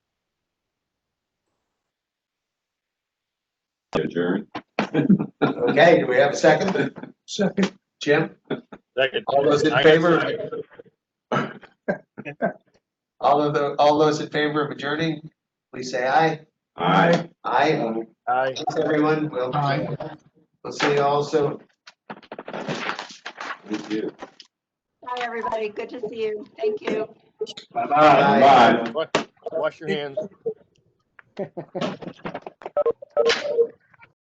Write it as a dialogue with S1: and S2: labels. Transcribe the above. S1: Adjourn.
S2: Okay, do we have a second?
S3: Second,
S2: Jim,
S4: Second.
S2: all those in
S4: I-
S2: favor? All of the, all those in favor of adjourning, please say aye.
S1: Aye.
S2: Aye.
S4: I-
S2: Thanks, everyone. We'll, we'll see you all soon.
S1: Thank you.
S5: Hi, everybody. Good to see you. Thank you.
S2: Bye.
S1: Bye.
S4: Wash your hands.